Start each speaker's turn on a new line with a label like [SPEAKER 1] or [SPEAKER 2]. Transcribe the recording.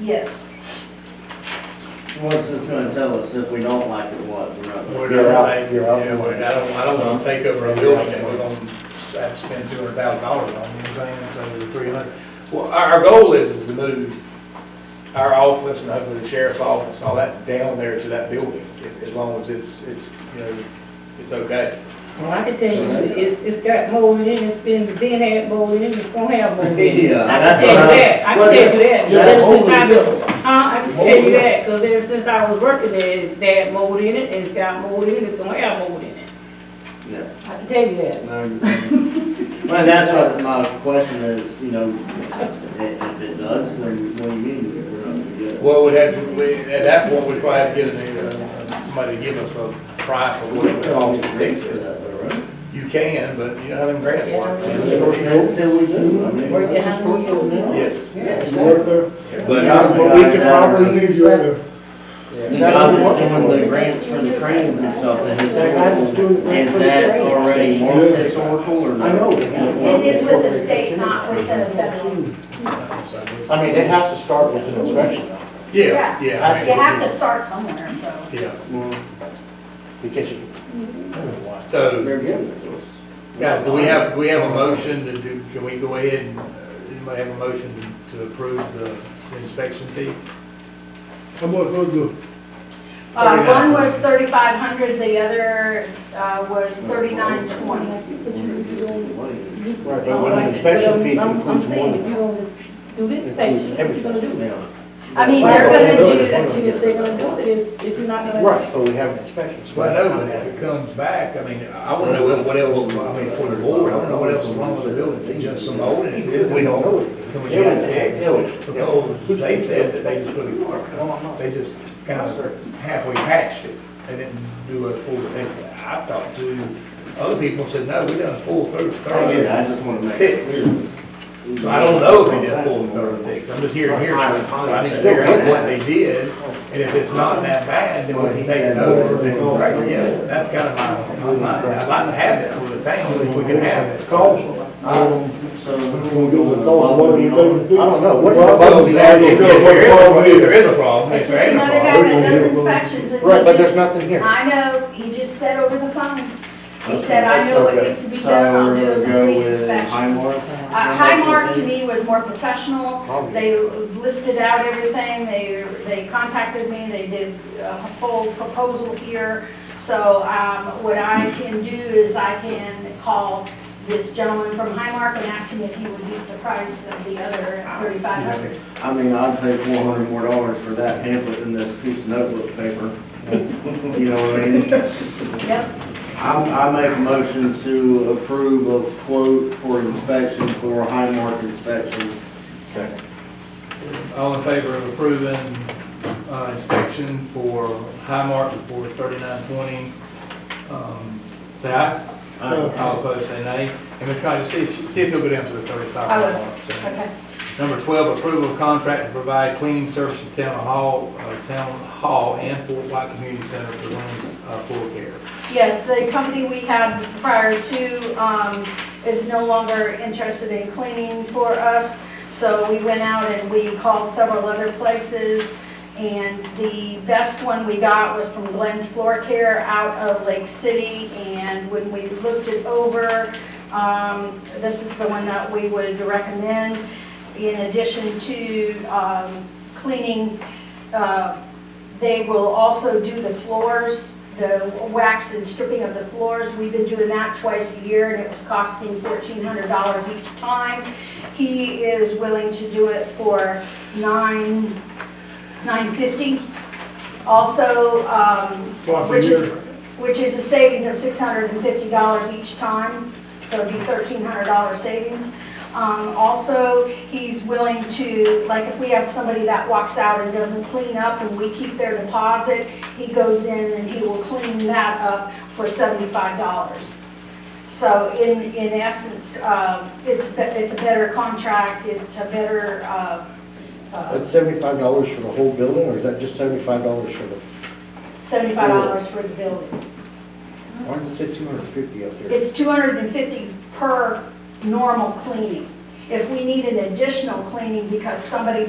[SPEAKER 1] Yes,
[SPEAKER 2] What's this gonna tell us if we don't like it, what, we're up?
[SPEAKER 3] We're
[SPEAKER 4] You're out,
[SPEAKER 3] not,
[SPEAKER 4] you're out.
[SPEAKER 3] yeah, we're- I don't, I don't wanna take over a building that we're gonna have to spend two hundred thousand dollars on, you know what I'm saying, so three hundred. Well, our, our goal is is to move our office and hopefully the sheriff's office, all that down there to that building, a- as long as it's, it's, you know, it's okay.
[SPEAKER 5] Well, I can tell you, it's, it's got mold in it, it's been, been had mold in it, it's gonna have mold in it.
[SPEAKER 2] Yeah,
[SPEAKER 5] I
[SPEAKER 2] that's
[SPEAKER 5] can tell
[SPEAKER 2] what
[SPEAKER 5] you
[SPEAKER 2] I-
[SPEAKER 5] that, I
[SPEAKER 2] well,
[SPEAKER 5] can tell you that.
[SPEAKER 3] yeah,
[SPEAKER 5] Ever
[SPEAKER 3] mold
[SPEAKER 5] since I-
[SPEAKER 3] in it.
[SPEAKER 5] Huh, I can tell you that, because ever since I was working there, it's had mold in it, and it's got mold in it, it's gonna have mold in it.
[SPEAKER 2] Yeah.
[SPEAKER 5] I can tell you that.
[SPEAKER 2] Well, that's what my question is, you know, i- if it does, then what do you mean, we're not gonna get it?
[SPEAKER 3] Well, we'd have, to- we, at that point, we'd probably have to get a- a- somebody to give us a price of what it would cost to fix it. You can, but you know how them grants work.
[SPEAKER 2] That's still we do, I mean.
[SPEAKER 5] Or you
[SPEAKER 2] that's
[SPEAKER 5] have
[SPEAKER 2] just what
[SPEAKER 5] mold in
[SPEAKER 2] we
[SPEAKER 5] it.
[SPEAKER 2] do.
[SPEAKER 3] Yes.
[SPEAKER 2] It's worth it. But
[SPEAKER 4] Yeah,
[SPEAKER 2] I'm
[SPEAKER 4] but we could probably use that.
[SPEAKER 2] You got this doing the grants for the trains and stuff, the historical, is that already more historical or not?
[SPEAKER 4] I know.
[SPEAKER 1] it is with the state, not with the federal.
[SPEAKER 4] I mean, it has to start with an inspection, though,
[SPEAKER 3] Yeah, yeah. I mean,
[SPEAKER 1] You have to start somewhere, so.
[SPEAKER 3] Yeah,
[SPEAKER 2] Well,
[SPEAKER 4] because you,
[SPEAKER 3] so, Mm-hmm.
[SPEAKER 2] They're giving it to us.
[SPEAKER 3] guys, do we have, do we have a motion to do, can we go ahead and, uh, anybody have a motion to approve the inspection fee?
[SPEAKER 6] How much was the,
[SPEAKER 1] Uh, one
[SPEAKER 3] 39.
[SPEAKER 1] was thirty-five hundred, the other, uh, was thirty-nine twenty.
[SPEAKER 4] right, but when the inspection fee includes more
[SPEAKER 5] I'm saying, if
[SPEAKER 4] than
[SPEAKER 5] you're
[SPEAKER 4] includes
[SPEAKER 5] gonna do the inspection, you're gonna
[SPEAKER 4] everything.
[SPEAKER 5] do it.
[SPEAKER 2] Yeah.
[SPEAKER 1] I mean, they're gonna do,
[SPEAKER 5] If they're gonna do it, if, if you're not gonna.
[SPEAKER 4] Right, but we have an inspection. so
[SPEAKER 3] Well, I know, but if it comes back, I mean, I wanna know what else, I mean, for the board, I wanna know what else is wrong with the building, it's just some old. and it's-
[SPEAKER 4] We don't know it.
[SPEAKER 3] Can we get it checked? Because they said that they just put it, apart. they just kind of halfway patched it, they didn't do a full, they, I talked to other people, said, no, we done a full third,
[SPEAKER 2] I get it,
[SPEAKER 3] third.
[SPEAKER 2] Oh, I just wanna make it clear.
[SPEAKER 3] So I don't know if they did a full third fix, I'm just hearing here, so I need to figure out what they did, and if it's not that bad, then we can take it over. and go right together. That's kind of my, my, mindset. I'd like to have it for the town, if we can have it.
[SPEAKER 2] So.
[SPEAKER 4] What do you think? I don't know. What do you-
[SPEAKER 3] Well, if there is- if there is a problem, if there
[SPEAKER 1] it's
[SPEAKER 3] is a problem, if there
[SPEAKER 1] just
[SPEAKER 3] ain't a
[SPEAKER 1] another
[SPEAKER 3] problem.
[SPEAKER 1] guy that does inspections and. he
[SPEAKER 4] Right, but there's
[SPEAKER 1] just-
[SPEAKER 4] nothing here.
[SPEAKER 1] I know, he just said over the phone. He
[SPEAKER 2] Okay,
[SPEAKER 1] said, I
[SPEAKER 2] that's
[SPEAKER 1] know what
[SPEAKER 2] okay.
[SPEAKER 1] needs to be
[SPEAKER 2] So
[SPEAKER 1] done, I'll
[SPEAKER 2] we're
[SPEAKER 1] do a
[SPEAKER 2] gonna uh, go
[SPEAKER 1] complete
[SPEAKER 2] with
[SPEAKER 1] inspection.
[SPEAKER 2] Highmark?
[SPEAKER 1] Uh, Highmark to me was more professional.
[SPEAKER 4] Obviously.
[SPEAKER 1] They listed out everything, they, they contacted me, they did a full proposal here. So, um, what I can do is I can call this gentleman from Highmark and ask him if he would beat the price of the other thirty-five hundred.
[SPEAKER 2] I mean, I'd pay four hundred more dollars for that pamphlet than this piece of notebook paper. You know what I mean?
[SPEAKER 1] Yep,
[SPEAKER 2] I'm, I make a motion to approve of quote for inspection for Highmark inspection.
[SPEAKER 3] All in favor of approving, uh, inspection for Highmark for thirty-nine twenty, um, say aye. All opposed, say nay. And Ms. Connie, see if, see if you'll go down to the thirty-five.
[SPEAKER 1] I would.
[SPEAKER 3] mark, so.
[SPEAKER 1] okay.
[SPEAKER 3] Number 12, approval of contract to provide cleaning services to Town Hall, uh, Town Hall and Fort White Community Center for women's uh, floor care.
[SPEAKER 1] Yes, the company we had prior to um, is no longer interested in cleaning for us, so we went out and we called several other places, and the best one we got was from Glenn's Floor Care out of Lake City, and when we looked it over, um, this is the one that we would recommend. In addition to um, cleaning uh, they will also do the floors, the wax and stripping of the floors. We've been doing that twice a year, and it was costing fourteen hundred dollars each time. He is willing to do it for nine, nine fifty. Also, um,
[SPEAKER 6] Twice a
[SPEAKER 1] which is,
[SPEAKER 6] year.
[SPEAKER 1] which is a savings of six hundred and fifty dollars each time, so it'd be thirteen hundred dollar savings. Um, also, he's willing to, like, if we have somebody that walks out and doesn't clean up and we keep their deposit, he goes in and he will clean that up for seventy-five dollars. So in, in essence, uh, it's, be- it's a better contract, it's a better, uh, uh,
[SPEAKER 4] That's seventy-five dollars for the whole building, or is that just seventy-five dollars for the,
[SPEAKER 1] seventy-five dollars for the building.
[SPEAKER 4] why does it say two hundred and fifty up there?
[SPEAKER 1] It's 250 per normal cleaning. If we need an additional cleaning because somebody